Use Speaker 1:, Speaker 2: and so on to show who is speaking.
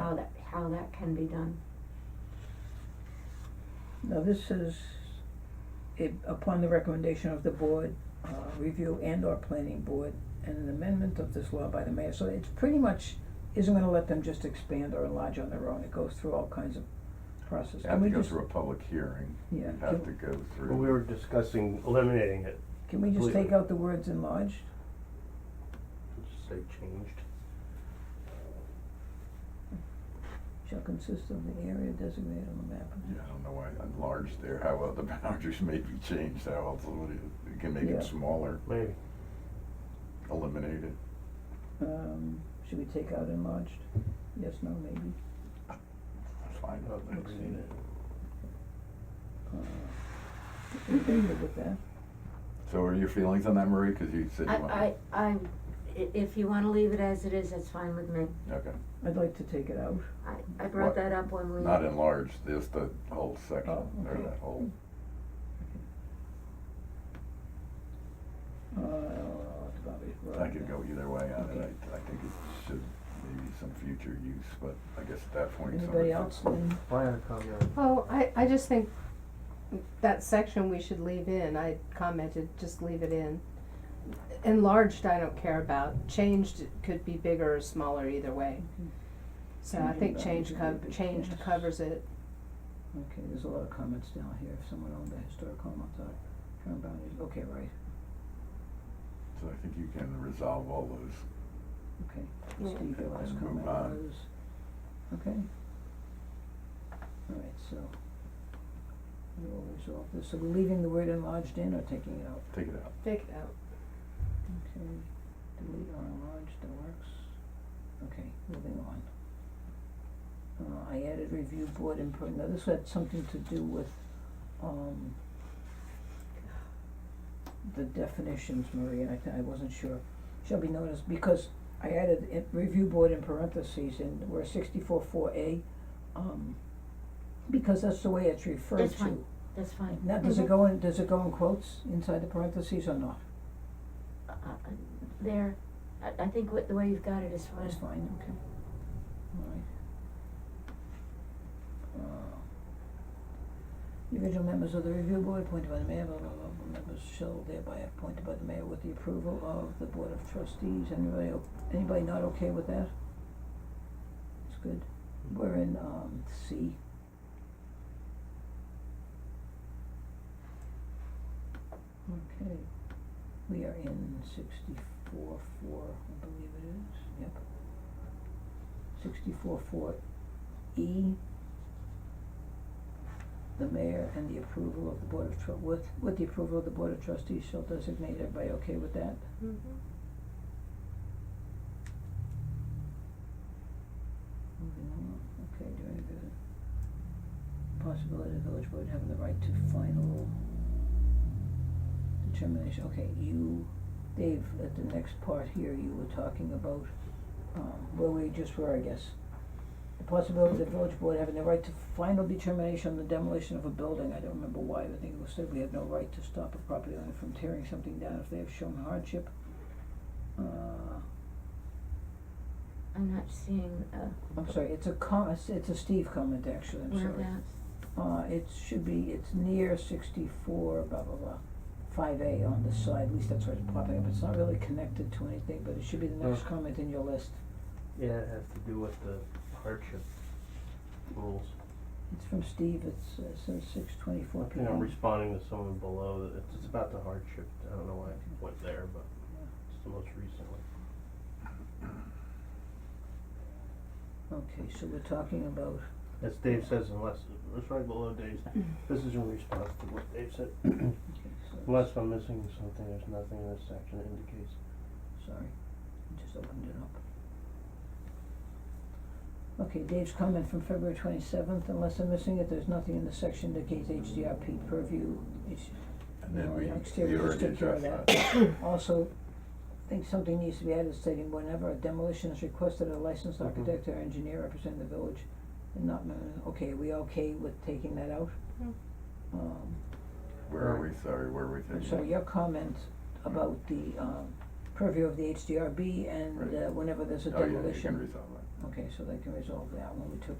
Speaker 1: how that can be done.
Speaker 2: Now, this is it, upon the recommendation of the board, uh, review and or planning board, and an amendment of this law by the mayor, so it's pretty much isn't gonna let them just expand or enlarge on their own, it goes through all kinds of processes. Can
Speaker 3: You have to
Speaker 2: we
Speaker 3: go
Speaker 2: just-
Speaker 3: through a public hearing.
Speaker 2: Yeah,
Speaker 3: You have to
Speaker 2: can-
Speaker 3: go
Speaker 4: Well, we
Speaker 3: through,
Speaker 4: were discussing eliminating it,
Speaker 2: Can we just take
Speaker 4: completely.
Speaker 2: out the words enlarged?
Speaker 4: just say changed.
Speaker 2: Shall consist of the area designated on the map.
Speaker 3: yeah, I don't know why enlarged there, how uh, the boundaries may be changed, how else would it, you can make
Speaker 2: Yeah.
Speaker 3: it smaller,
Speaker 4: Maybe.
Speaker 3: eliminate it.
Speaker 2: Um, should we take out enlarged? Yes, no, maybe.
Speaker 3: Fine.
Speaker 4: Not that we need it.
Speaker 2: Uh, okay, good with that.
Speaker 3: So what are your feelings on that, Marie? Because you said you wanted.
Speaker 1: I, I, I, i- if you wanna leave it as it is, that's fine with me.
Speaker 3: Okay,
Speaker 2: I'd like to take it out.
Speaker 1: I, I brought
Speaker 3: What?
Speaker 1: that up when we.
Speaker 3: not enlarged, just the whole section,
Speaker 2: Oh,
Speaker 3: or
Speaker 2: okay.
Speaker 3: that whole,
Speaker 2: Uh, Bobby's
Speaker 3: I
Speaker 2: brought
Speaker 3: could
Speaker 2: that.
Speaker 3: go either way on it,
Speaker 2: Okay.
Speaker 3: I, I think it should, maybe some future use, but I guess at that point. someone
Speaker 2: Anybody
Speaker 3: could-
Speaker 2: else? Then
Speaker 4: Brian, a copy of it.
Speaker 5: Oh, I, I just think that section we should leave in, I commented, just leave it in. Enlarged, I don't care about, changed could be bigger or smaller either way. So I think change cov- changed covers it,
Speaker 2: Okay, there's a lot of comments down here, if someone owned the historical Montauk, term boundaries, okay, right,
Speaker 3: So I think you can resolve all those.
Speaker 2: okay.
Speaker 5: Yeah.
Speaker 2: Steve, your last
Speaker 3: And move
Speaker 2: comment
Speaker 3: on.
Speaker 2: was, okay. Alright, so, we will resolve this, so we're leaving the word enlarged in or taking it out?
Speaker 3: Take it out.
Speaker 5: take it out.
Speaker 2: Okay, delete or enlarge, that works. Okay, moving on. Uh, I added review board input, now this had something to do with, um, the definitions, Marie, and I, thi- I wasn't sure, shall be noticed, because I added in, review board in parentheses, and we're sixty-four four A, um, because that's the way it's referred to.
Speaker 1: That's fine. That's fine.
Speaker 2: Now, does
Speaker 1: Mhm.
Speaker 2: it go in, does it go in quotes inside the parentheses or not?
Speaker 1: Uh, uh, There, I, I think what, the way you've got it is fine.
Speaker 2: That's fine, okay. Alright. Uh, The Original members of the review board appointed by the mayor, blah, blah, blah, blah, members shall thereby appointed by the mayor with the approval of the board of trustees, anybody, o- anybody not okay with that? It's good, we're in, um, C. Okay, we are in sixty-four, four, I believe it is, yep sixty-four four E. The mayor and the approval of the board of tru- with, with the approval of the board of trustees shall designate everybody okay with that?
Speaker 5: Mhm.
Speaker 2: Moving on, okay, doing good. Possibility of the village board having the right to final determination, okay, you, Dave, at the next part here, you were talking about, um, where we just were, I guess. The possibility of the village board having the right to final determination on the demolition of a building, I don't remember why, I think it was said we have no right to stop a property owner from tearing something down if they have shown hardship. Uh,
Speaker 1: I'm not seeing, uh,
Speaker 2: I'm sorry, it's a com- it's, it's a Steve comment actually, I'm sorry.
Speaker 1: whereabouts.
Speaker 2: Uh, it should be, it's near sixty-four, blah, blah, blah, five A on the side, at least that's where it's popping up, it's not really connected to anything, but it should be the next
Speaker 4: Oh.
Speaker 2: comment in your list.
Speaker 4: Yeah, it has to do with the hardship rules.
Speaker 2: It's from Steve, it's, uh, says six twenty-four
Speaker 4: I
Speaker 2: P M.
Speaker 4: think I'm responding to someone below, that it's, it's about the hardship, I don't know why I went there, but it's the most recent one.
Speaker 2: Okay, so we're talking about,
Speaker 4: As Dave says, unless, it's right below Dave's, this is in response to what Dave said.
Speaker 2: okay, so,
Speaker 4: Unless I'm missing something, there's nothing in this section that indicates.
Speaker 2: sorry, I just opened it up. Okay, Dave's comment from February twenty-seventh, unless I'm missing it, there's nothing in the section that indicates H D R P purview, H-
Speaker 3: And then
Speaker 2: No,
Speaker 3: we,
Speaker 2: yeah,
Speaker 3: we
Speaker 2: exterior,
Speaker 3: already
Speaker 2: just take care
Speaker 3: addressed
Speaker 2: of
Speaker 3: that.
Speaker 2: Also, I think something needs to be added stating whenever a demolition is requested, a licensed
Speaker 4: Mhm.
Speaker 3: Mm-hmm.
Speaker 2: architect or engineer representing the village and not, uh, okay, are we okay with taking that out?
Speaker 5: Mm.
Speaker 2: Um,
Speaker 3: Where are we, sorry, where are we
Speaker 2: and
Speaker 3: taking?
Speaker 2: so
Speaker 3: it?
Speaker 2: your comment about the, um, purview of the HDRB and,
Speaker 3: Right.
Speaker 2: uh, whenever there's a
Speaker 3: Oh, yeah, you can
Speaker 2: demolition,
Speaker 3: resolve that.
Speaker 2: okay, so they can resolve that one, we took